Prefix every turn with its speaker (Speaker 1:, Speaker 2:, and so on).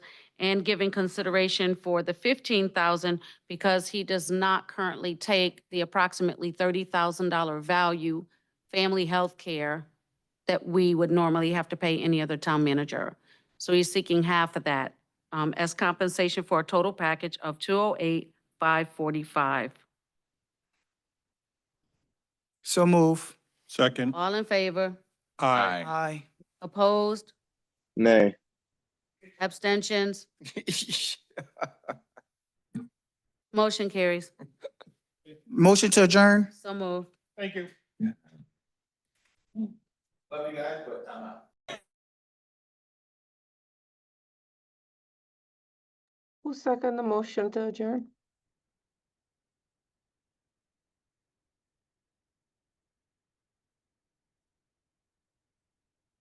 Speaker 1: and giving consideration for the fifteen thousand because he does not currently take the approximately thirty thousand dollar value family health care that we would normally have to pay any other town manager. So he's seeking half of that um, as compensation for a total package of two oh eight, five forty-five.
Speaker 2: So move.
Speaker 3: Second.
Speaker 1: All in favor?
Speaker 3: Aye.
Speaker 2: Aye.
Speaker 1: Opposed?
Speaker 4: Nay.
Speaker 1: Abstentions? Motion carries.
Speaker 2: Motion to adjourn?
Speaker 1: So moved.
Speaker 3: Thank you.
Speaker 5: Love you guys, but I'm out.
Speaker 6: Who second the motion to adjourn?